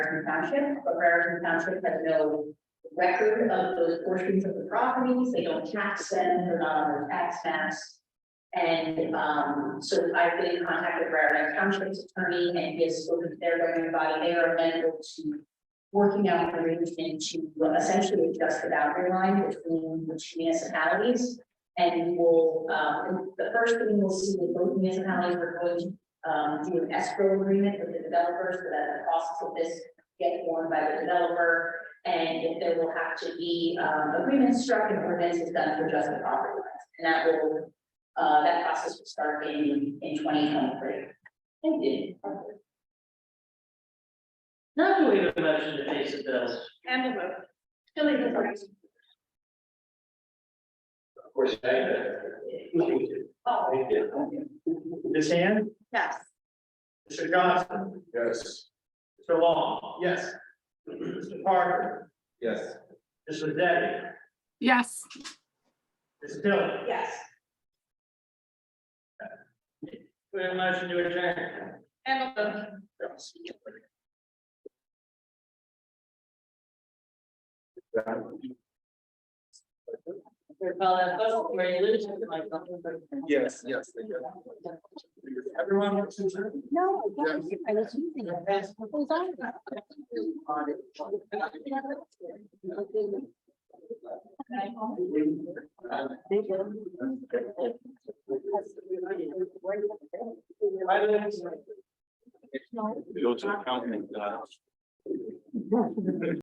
Raritan Township, but Raritan Township has no record of those portions of the properties, they don't tax them, they're not on their tax maps. And, um, so I've been in contact with Raritan Township's attorney, and he has spoken to their governing body, they are amenable to working out an arrangement to essentially adjust the boundary line between the two municipalities. And we'll, um, the first thing we'll see with both municipalities, we're going to um, do an escrow agreement with the developers so that the costs of this get borne by the developer. And if there will have to be, um, agreements struck and ordinances done to adjust the property lines. And that will, uh, that process will start in, in twenty twenty-three. Thank you. Now do we have a motion to pay the bills? And the vote. Tilly, the first. Of course, I, Oh, thank you. Ms. Hand? yes. Mr. Johnson? Yes. Mr. Long? Yes. Mr. Parker? Yes. Ms. Detti? Yes, Ms. Tilly? Yes. We have a motion to adjourn. And the vote. We call that vote, where you lose it, like, something. Yes, yes. Everyone wants to. turn? No, I Yeah. don't. I was using it. That's what was on it. Go to the county. uh,